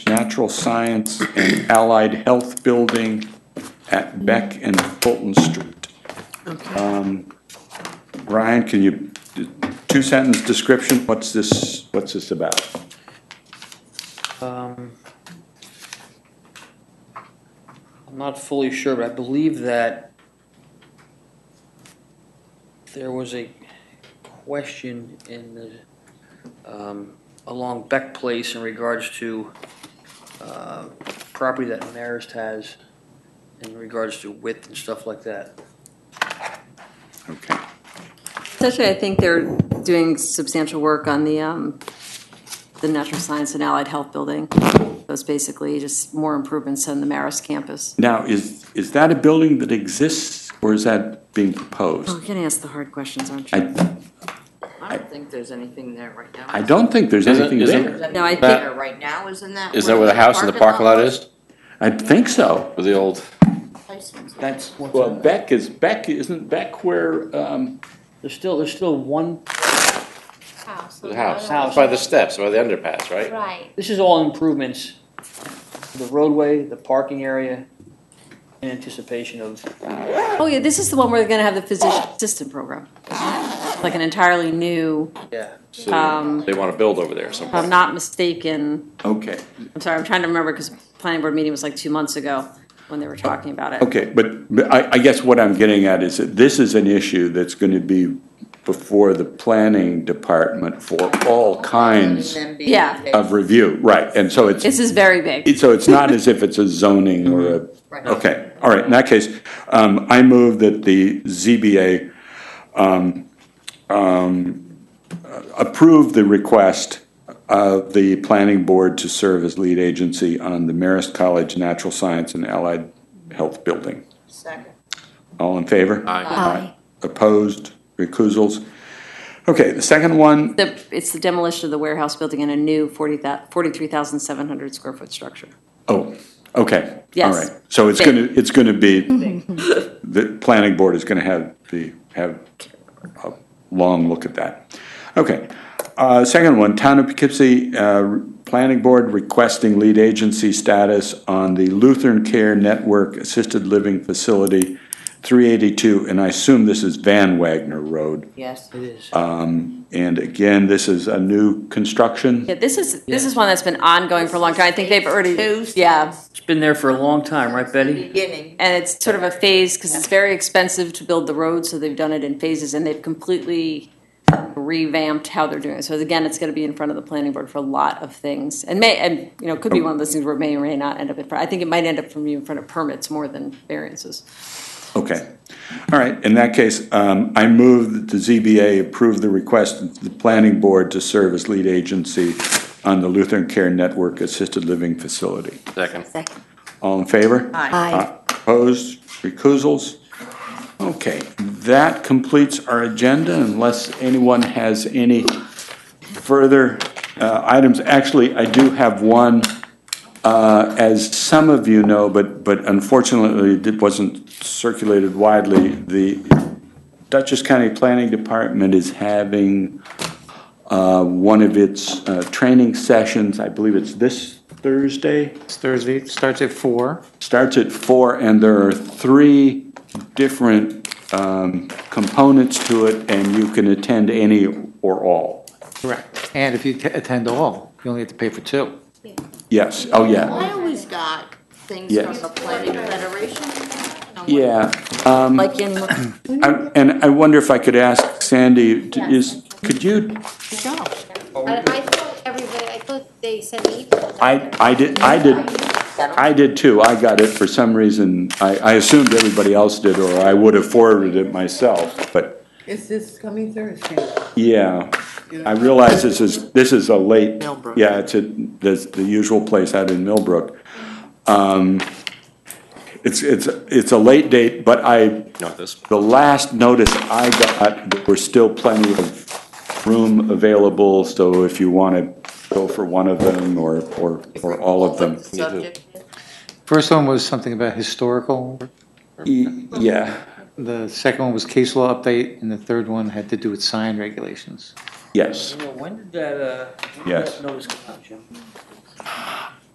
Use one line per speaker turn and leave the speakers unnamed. Natural Science and Allied Health Building at Beck and Fulton Street. Um, Ryan, can you, two sentence description, what's this, what's this about?
Um, I'm not fully sure, but I believe that there was a question in the, um, along Beck Place in regards to uh, property that Marist has in regards to width and stuff like that.
Okay.
Essentially, I think they're doing substantial work on the, um, the Natural Science and Allied Health Building. Those basically just more improvements on the Marist campus.
Now, is, is that a building that exists or is that being
Oh,
proposed?
you're gonna ask the hard questions, aren't you?
I,
I don't think there's anything there right now.
I don't think there's
Isn't-
anything
isn't-
there.
There's anything
No, I
think-
there Right now, isn't that?
Is that where the house in the parking lot is?
I think so.
With the old,
Tyson's.
That's.
Well, Beck is, Beck, isn't Beck where, um,
There's still, there's still one,
House.
the house,
House.
by the steps, by the underpass, right?
Right.
this is all improvements, the roadway, the parking area, in anticipation of
Oh, yeah, this is the one where they're gonna have the physician assistant program. Like an entirely new,
Yeah.
So
Um,
They want to build over there
if I'm
somewhere.
not mistaken,
okay,
I'm sorry, I'm trying to remember, because planning board meeting was like two months ago when they were talking about it.
okay, but, but I, I guess what I'm getting at is that this is an issue that's gonna be before the planning department for all kinds
Yeah.
of review, right, and so it's,
This is very big.
it- so it's not as if it's a zoning or a,
Right.
okay, all right, in that case, um, I move that the ZBA, um, um, approve the request of the planning board to serve as lead agency on the Marist College Natural Science and Allied Health Building.
Second.
All in favor?
Aye.
Opposed, recusals? Okay, the second one,
The, it's the demolition of the warehouse building and a new forty thou, forty-three thousand seven hundred square foot structure.
oh, okay. All
Yes.
right, so it's
Big.
gonna, it's gonna be, the planning board is gonna have the, have a long look at that. Okay, uh, second one, Town of Poughkeepsie, uh, Planning Board requesting lead agency status on the Lutheran Care Network Assisted Living Facility, three eighty-two, and I assume this is Van Wagner Road.
Yes.
It is.
And again, this is a new construction.
Yeah, this is, this is one that's been ongoing for a long time. I think they've already, yeah.
It's been there for a long time, right, Betty?
Beginning.
And it's sort of a phase, because it's very expensive to build the road, so they've done it in phases, and they've completely revamped how they're doing it. So again, it's gonna be in front of the planning board for a lot of things. And may, and, you know, it could be one of those things where it may or may not end up in front, I think it might end up from you in front of permits more than variances.
Okay. All right, in that case, um, I move that the ZBA approve the request of the planning board to serve as lead agency on the Lutheran Care Network Assisted Living Facility.
Second.
Second.
All in favor?
Aye.
Aye.
Uh, Opposed? Recusals? Okay, that completes our agenda unless anyone has any further uh, items. Actually, I do have one, uh, as some of you know, but, but unfortunately it wasn't circulated widely. The Dutchess County Planning Department is having uh, one of its uh, training sessions, I believe it's this Thursday?
It's Thursday, starts at four.
starts at four, and there are three different um, components to it, and you can attend any or all.
Correct. And if you t- attend all, you only have to pay for two.
Yes, oh, yeah,
I always got things
Yeah.
from the planning federation. I don't know what-
yeah.
Like in,
I- And I wonder if I could ask Sandy, t- is, could you,
But I thought everybody, I thought they sent me. emails.
I, I did, I did, I did too, I got it for some reason. I, I assumed everybody else did, or I would have forwarded it myself, but,
It's this coming Thursday.
yeah. I realize this is, this is a late.
Millbrook.
Yeah, it's at, the, the usual place out in Millbrook. Um, it's, it's, it's a late date, but I,
Not this.
the last notice I got, there were still plenty of room available, so if you wanna go for one of them or, or, or all of them.
What the subject is.
First one was something about historical,
E- Yeah,
the second one was case law update, and the third one had to do with sign regulations.
yes.
When did that, uh? when did
Yes.
that Notice come out, Jim?